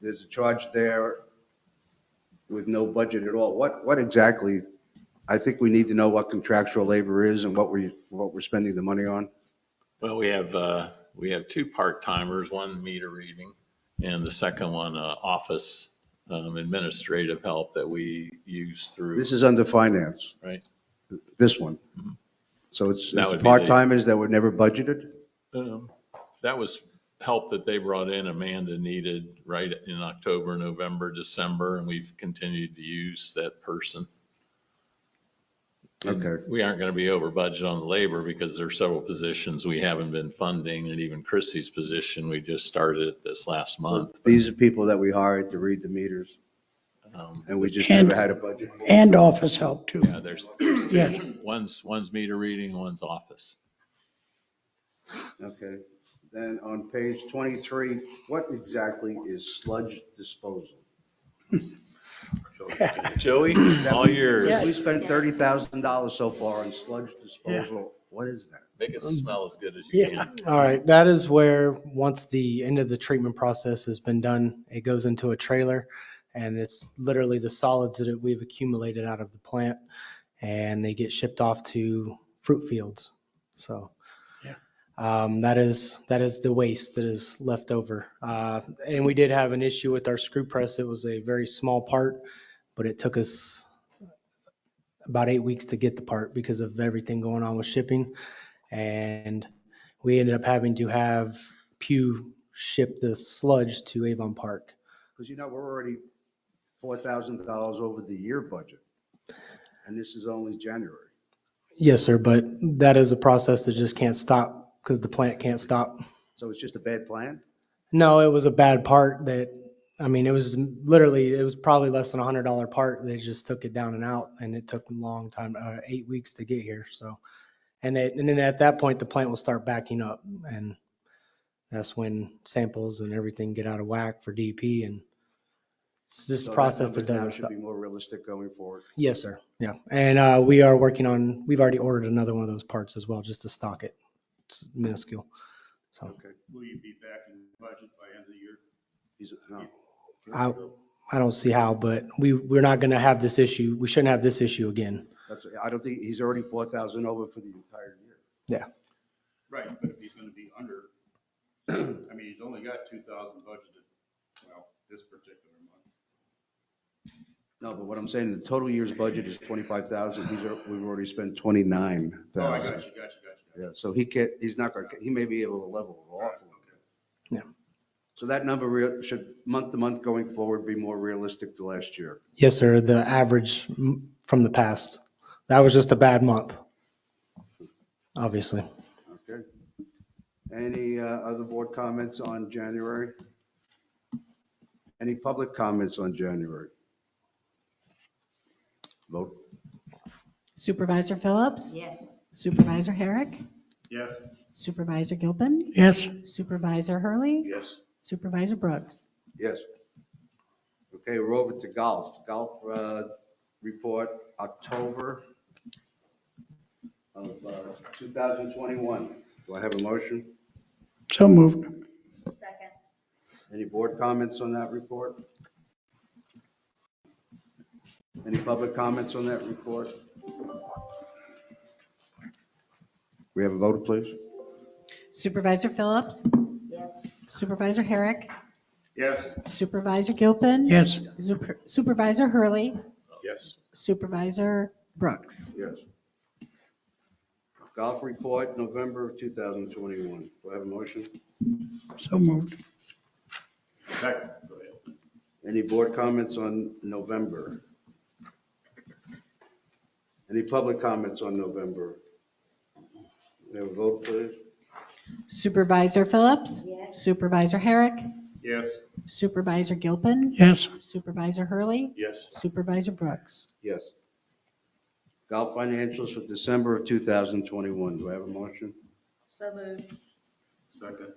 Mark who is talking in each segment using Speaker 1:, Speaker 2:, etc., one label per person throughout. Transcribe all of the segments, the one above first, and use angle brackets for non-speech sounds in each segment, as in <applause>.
Speaker 1: there's a charge there with no budget at all. What, what exactly, I think we need to know what contractual labor is and what we, what we're spending the money on.
Speaker 2: Well, we have, uh, we have two part-timers, one meter reading and the second one, uh, office um, administrative help that we use through.
Speaker 1: This is under finance.
Speaker 2: Right. Mm-hmm.
Speaker 1: This one. So it's
Speaker 2: That would
Speaker 1: it's
Speaker 2: be the-
Speaker 1: part-timers that were never budgeted?
Speaker 2: Um, That was help that they brought in, Amanda needed right in October, November, December, and we've continued to use that person. And
Speaker 1: Okay.
Speaker 2: We aren't going to be over budget on the labor because there are several positions we haven't been funding and even Chrissy's position, we just started it this last month.
Speaker 1: These are people that we hired to read the meters
Speaker 2: Um,
Speaker 1: and we just
Speaker 3: And-
Speaker 1: never had a budget.
Speaker 3: and office help too.
Speaker 2: Yeah, there's, there's
Speaker 3: Yes.
Speaker 2: two, one's, one's meter reading, one's office.
Speaker 1: Okay. Then on page 23, what exactly is sludge disposal?
Speaker 2: Joey, all yours.
Speaker 1: We spent $30,000 so far on sludge disposal. What is that?
Speaker 2: Make it smell as good as you
Speaker 4: Yeah,
Speaker 2: can.
Speaker 4: all right. That is where, once the end of the treatment process has been done, it goes into a trailer. And it's literally the solids that we've accumulated out of the plant and they get shipped off to fruit fields. So.
Speaker 3: Yeah.
Speaker 4: Um, that is, that is the waste that is left over. Uh, and we did have an issue with our screw press. It was a very small part, but it took us about eight weeks to get the part because of everything going on with shipping. And we ended up having to have Pew ship the sludge to Avon Park.
Speaker 1: Because you know, we're already $4,000 over the year budget. And this is only January.
Speaker 4: Yes, sir, but that is a process that just can't stop because the plant can't stop.
Speaker 1: So it's just a bad plan?
Speaker 4: No, it was a bad part that, I mean, it was literally, it was probably less than a hundred dollar part. They just took it down and out and it took a long time, uh, eight weeks to get here, so. And it, and then at that point, the plant will start backing up and that's when samples and everything get out of whack for DP and it's this
Speaker 1: So that
Speaker 4: process that
Speaker 1: number now
Speaker 4: doesn't stop.
Speaker 1: Should be more realistic going forward.
Speaker 4: Yes, sir. Yeah. And uh, we are working on, we've already ordered another one of those parts as well, just to stock it. It's minuscule. So
Speaker 1: Okay.
Speaker 5: Will you be back in budget by end of the year?
Speaker 1: He's- no.
Speaker 4: I, I don't see how, but we, we're not going to have this issue. We shouldn't have this issue again.
Speaker 1: That's, I don't think, he's already 4,000 over for the entire year.
Speaker 5: Right, but if he's gonna be under, <clears throat> I mean, he's only got two thousand budgeted, well, this particular month.
Speaker 1: No, but what I'm saying, the total year's budget is 25,000. He's, al- we've already spent 29,000.
Speaker 5: Oh, I got you, got you, got you. got you.
Speaker 1: Yeah, so he can't, he's not gonna, he may be able to level it off. a little bit.
Speaker 4: Yeah.
Speaker 1: So that number rea- should, month to month going forward, be more realistic to last year.
Speaker 4: Yes, sir, the average mm, from the past. That was just a bad month, obviously.
Speaker 1: Okay. Any uh, other board comments on January? Any public comments on January? Vote.
Speaker 6: Supervisor Phillips?
Speaker 7: Yes.
Speaker 6: Supervisor Herrick?
Speaker 5: Yes?
Speaker 6: Supervisor Gilpin?
Speaker 3: Yes,
Speaker 6: Supervisor Hurley?
Speaker 5: Yes.
Speaker 6: Supervisor Brooks?
Speaker 1: Yes. Okay, we're over to golf. Golf uh, report, October of uh, 2021. Do I have a motion?
Speaker 3: so moved.
Speaker 7: Second.
Speaker 1: Any board comments on that report? Any public comments on that report? We have a vote, please?
Speaker 6: Supervisor Phillips?
Speaker 7: Yes.
Speaker 6: Supervisor Herrick?
Speaker 5: Yes.
Speaker 6: Supervisor Gilpin?
Speaker 3: Yes,
Speaker 6: Super- Supervisor Hurley?
Speaker 5: Yes.
Speaker 6: Supervisor Brooks?
Speaker 1: Yes. Golf report, November of 2021. Do I have a motion?
Speaker 3: so moved.
Speaker 5: Second, go ahead.
Speaker 1: Any board comments on November? Any public comments on November? We have a vote, please?
Speaker 6: Supervisor Phillips?
Speaker 7: Yes.
Speaker 6: Supervisor Herrick?
Speaker 5: Yes.
Speaker 6: Supervisor Gilpin?
Speaker 3: Yes,
Speaker 6: Supervisor Hurley?
Speaker 5: Yes.
Speaker 6: Supervisor Brooks?
Speaker 1: Yes. Golf financials for December of 2021. Do I have a motion?
Speaker 7: So moved.
Speaker 5: Second.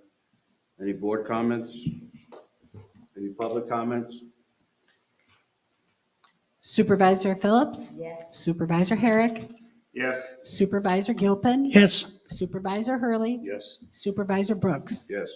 Speaker 1: Any board comments? Any public comments?
Speaker 6: Supervisor Phillips?
Speaker 7: Yes.
Speaker 6: Supervisor Herrick?
Speaker 5: Yes.
Speaker 6: Supervisor Gilpin?
Speaker 3: yes,
Speaker 6: Supervisor Hurley?
Speaker 5: Yes.
Speaker 6: Supervisor Brooks?
Speaker 1: Yes.